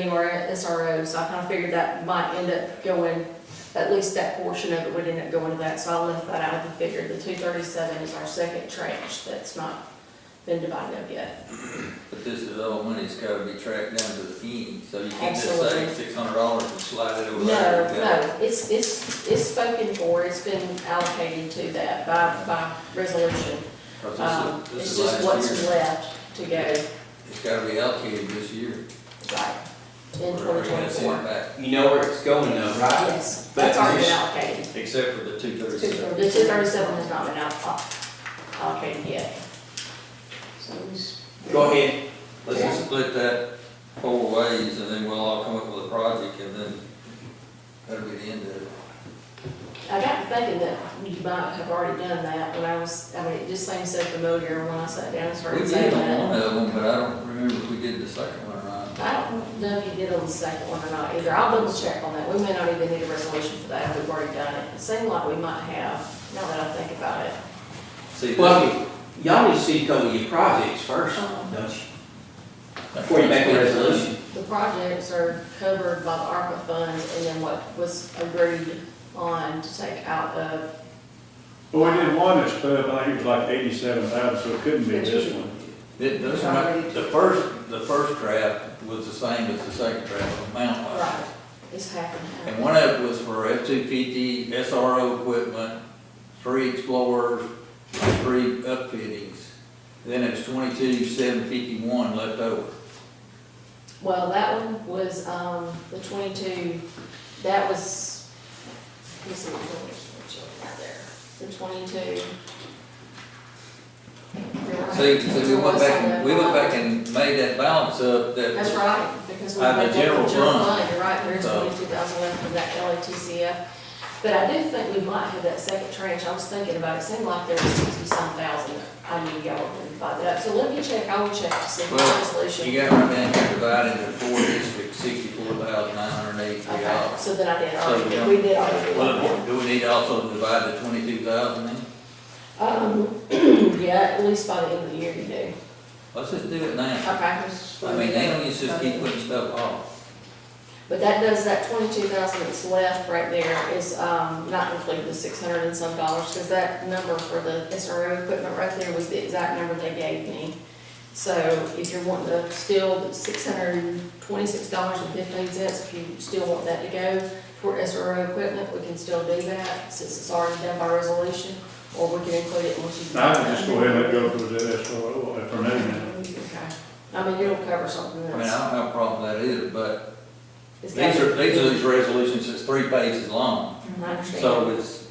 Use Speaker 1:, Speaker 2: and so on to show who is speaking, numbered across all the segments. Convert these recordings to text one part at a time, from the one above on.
Speaker 1: anywhere at SRO, so I kind of figured that might end up going, at least that portion of it would end up going to that, so I left that out of the figure. The two thirty-seven is our second tranche that's not been divided up yet.
Speaker 2: But this is all money, it's gotta be tracked down to the penny, so you can't just say
Speaker 1: Absolutely.
Speaker 2: six hundred dollars and slide it
Speaker 1: No,
Speaker 2: over there.
Speaker 1: no, it's, it's, it's spoken for, it's been allocated to that by, by resolution. Um,
Speaker 2: Cause this
Speaker 1: it's
Speaker 2: is, this
Speaker 1: just
Speaker 2: is last
Speaker 1: what's
Speaker 2: year,
Speaker 1: left to go,
Speaker 2: it's gotta be allocated this year.
Speaker 1: right, in
Speaker 2: We're already
Speaker 1: twenty
Speaker 2: gonna send it
Speaker 1: twenty-four.
Speaker 2: back,
Speaker 3: You know where it's going though, right?
Speaker 1: Yes,
Speaker 3: But
Speaker 1: that's already
Speaker 3: this-
Speaker 1: been allocated.
Speaker 2: Except for the two
Speaker 1: The
Speaker 2: thirty-seven.
Speaker 1: two thirty-seven has not been out, allocated yet. So it's-
Speaker 3: Go ahead.
Speaker 2: Let's just split that four ways and then we'll all come up with a project and then that'll be the end of it.
Speaker 1: I got to thinking that you might have already done that when I was, I mean, it just seems so familiar when I sat down and
Speaker 2: We
Speaker 1: started saying
Speaker 2: did on
Speaker 1: that.
Speaker 2: one of them, but I don't remember if we did the second one or not.
Speaker 1: I don't know if you did on the second one or not either. I'll double check on that. We may not even need a resolution for that. We've already done it. It seemed like we might have, now that I think about it.
Speaker 2: See, this,
Speaker 3: Well, y'all need to see a couple of your projects first, don't you? Before you make a resolution.
Speaker 1: The projects are covered by the ARPA funds and then what was agreed on to take out of,
Speaker 4: Well, we did one that's twelve, I think it was like eighty-seven thousand, so it couldn't be this one.
Speaker 2: th- those are not, the first, the first draft was the same as the second draft, amount wise.
Speaker 1: right, it's half and half.
Speaker 2: And one of it was for F two fifty, SRO equipment, three explorers, and three upfittings. Then it was twenty-two, seven fifty-one left over.
Speaker 1: Well, that one was, um, the twenty-two, that was, let me see, what one was the children out there? The twenty-two. You're right.
Speaker 2: See, so we
Speaker 1: There
Speaker 2: went
Speaker 1: was
Speaker 2: back,
Speaker 1: some
Speaker 2: and we went
Speaker 1: left
Speaker 2: back and made that balance up that.
Speaker 1: That's right, because we.
Speaker 2: Out
Speaker 1: went back
Speaker 2: of the
Speaker 1: to
Speaker 2: general fund.
Speaker 1: You're right, there's
Speaker 2: So-
Speaker 1: twenty-two thousand left from that LATCF. But I do think we might have that second tranche, I was thinking about it, it seemed like there was sixty-some thousand, I knew y'all would divide that up, so let me check, I will check to see if the
Speaker 2: Well,
Speaker 1: resolution.
Speaker 2: You got right down here divided into four districts, sixty-four thousand nine hundred eighty-three
Speaker 1: Okay,
Speaker 2: dollars.
Speaker 1: so then I did,
Speaker 2: So
Speaker 1: already,
Speaker 2: we don't-
Speaker 1: we did already. do that.
Speaker 2: Well, do we need also to divide the twenty-two thousand then?
Speaker 1: Um, yeah, at least by the end of the year you do.
Speaker 2: Let's just do it now.
Speaker 1: Okay.
Speaker 2: I mean, they don't used to just keep putting stuff off.
Speaker 1: But that does, that twenty-two thousand that's left right there is, um, not including the six hundred and some dollars, because that number for the SRO equipment right there was the exact number they gave me. So if you're wanting to still, six hundred and twenty-six dollars and fifteen cents, if you still want that to go for SRO equipment, we can still do that, since it's already done by resolution, or we can include it once you.
Speaker 4: I would just go ahead and let go for the SRO, if uh, for me now.
Speaker 1: Okay, I mean, it'll cover something that's.
Speaker 2: I mean, I don't have a problem with that either, but
Speaker 1: It's
Speaker 2: these
Speaker 1: gotta
Speaker 2: are,
Speaker 1: be-
Speaker 2: these are these resolutions that's three pages long.
Speaker 1: Mhm, I understand.
Speaker 2: So it's,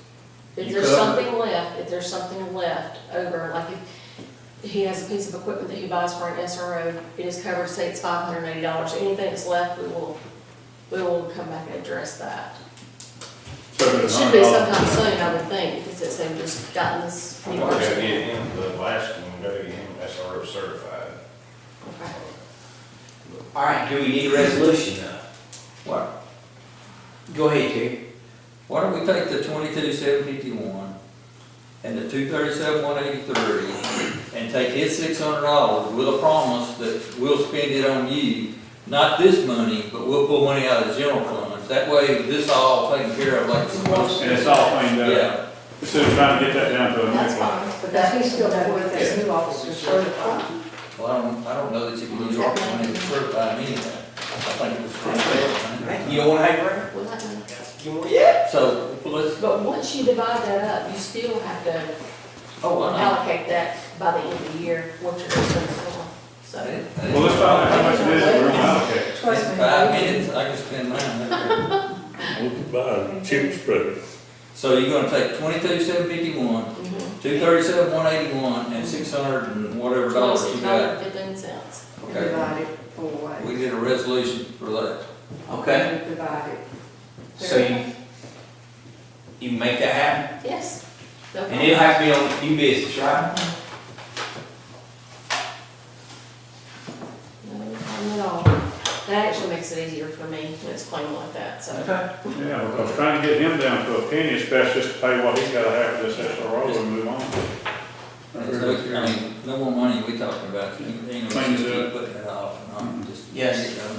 Speaker 1: If
Speaker 2: you
Speaker 1: there's
Speaker 2: could-
Speaker 1: something left, if there's something left over, like if he has a piece of equipment that he buys for an SRO, it is covered, say it's five hundred and eighty dollars, anything that's left, we will, we will come back and address that.
Speaker 4: So
Speaker 1: It
Speaker 4: it's
Speaker 1: should be
Speaker 4: $100.
Speaker 1: sometime soon, I would think, because it's, they've just gotten this.
Speaker 5: I'm
Speaker 1: new
Speaker 5: gonna go
Speaker 1: person.
Speaker 5: get him, the last one, go get him SRO certified.
Speaker 1: Okay.
Speaker 3: All right, do we need a resolution though?
Speaker 2: what,
Speaker 3: Go ahead, Terry.
Speaker 2: why don't we take the twenty-two, seven fifty-one and the two thirty-seven, one eighty-three and take his six hundred dollars with a promise that we'll spend it on you, not this money, but we'll pull money out of the general funds. That way, this all taken care of like it's supposed
Speaker 4: And it's all cleaned
Speaker 2: to.
Speaker 4: up,
Speaker 2: Yeah,
Speaker 4: instead of trying to get that down to a
Speaker 6: That's
Speaker 4: nickel.
Speaker 6: fine, but that he's still got with this new officer certified.
Speaker 2: well, I don't, I don't know that you can use our money to certify me that. I think it was for
Speaker 3: You don't wanna hang around?
Speaker 1: Well, that one-
Speaker 3: You want, yeah?
Speaker 2: So, well, let's,
Speaker 1: But once you divide that up, you still have to
Speaker 2: oh, I know.
Speaker 1: allocate that by the end of the year, what you're gonna spend.
Speaker 2: I
Speaker 1: So,
Speaker 2: didn't- I didn't-
Speaker 4: Well, let's find out how much it is that we're gonna allocate.
Speaker 6: Trust me.
Speaker 2: Five minutes, I can spend mine.
Speaker 7: We could buy a chip spreader.
Speaker 2: So you're gonna take twenty-two, seven fifty-one,
Speaker 1: mhm.
Speaker 2: two thirty-seven, one eighty-one, and six hundred and whatever dollars you
Speaker 1: Twenty-six
Speaker 2: got.
Speaker 1: dollars, fifteen cents.
Speaker 2: Okay,
Speaker 6: Divided four ways.
Speaker 2: we did a resolution for that.
Speaker 3: Okay,
Speaker 6: Divided.
Speaker 3: so you, you can make that happen?
Speaker 1: Yes. No
Speaker 3: And it'll have to be on new business, right?
Speaker 1: problem. No problem at all. That actually makes it easier for me to explain like that, so.
Speaker 3: Okay.
Speaker 4: Yeah, I was trying to get him down to a penny, it's best just to pay what he's gotta have for this SRO and move
Speaker 2: It's no- I
Speaker 4: on.
Speaker 2: mean, no more money we talking about, you know, we
Speaker 4: Clean it
Speaker 2: just keep
Speaker 4: up.
Speaker 2: putting it off and on, just.
Speaker 3: Yes.
Speaker 2: you know.